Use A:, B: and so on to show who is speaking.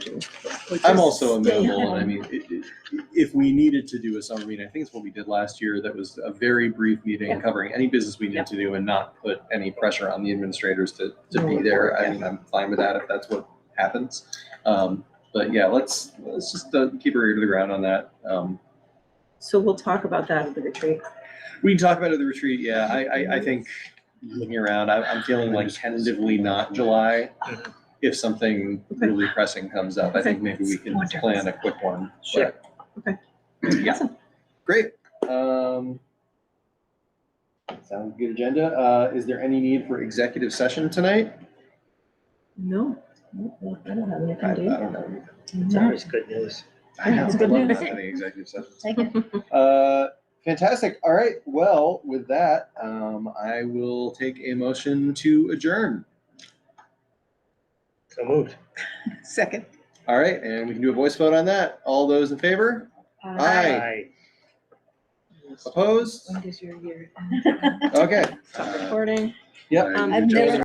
A: But
B: I'm
A: just
B: also
A: stay
B: amenable, and I
A: home.
B: mean, it- it- if we needed to do a summer meeting, I think it's what we did last year, that was a very brief meeting
A: Yeah.
B: covering any business we
A: Yeah.
B: need to do and not put any pressure on the administrators to, to
A: No
B: be
A: report,
B: there. I
A: yeah.
B: mean, I'm fine with that if that's what happens. Um, But yeah, let's, let's just uh, keep our ear to the ground on that. Um,
A: So we'll talk about that at the retreat.
B: We can talk about it at the retreat, yeah, I, I, I think, looking around, I'm, I'm feeling like tentatively not July. If something
A: Okay.
B: really pressing comes up, I think
A: Okay.
B: maybe we can
A: Wonderful.
B: plan a quick one. but-
A: Sure. Okay.
B: Yeah,
A: Awesome.
B: great, um. Sounds good agenda, uh, is there any need for executive session tonight?
A: No, no, I don't have
B: I I
A: anything to
B: don't know.
C: It's
A: do.
C: always good news.
B: I know,
A: It's
B: I
A: good
B: love
A: news.
B: not having executive sessions.
D: Second.
B: Uh, fantastic. All right. Well, with that, um, I will take a motion to adjourn.
C: So moved.
A: Second.
B: All right, and we can do a voice vote on that. All those in favor? Aye. Opposed?
A: does your year?
B: Okay.
A: Stop
B: Uh,
A: recording.
B: Yep.
D: I've never-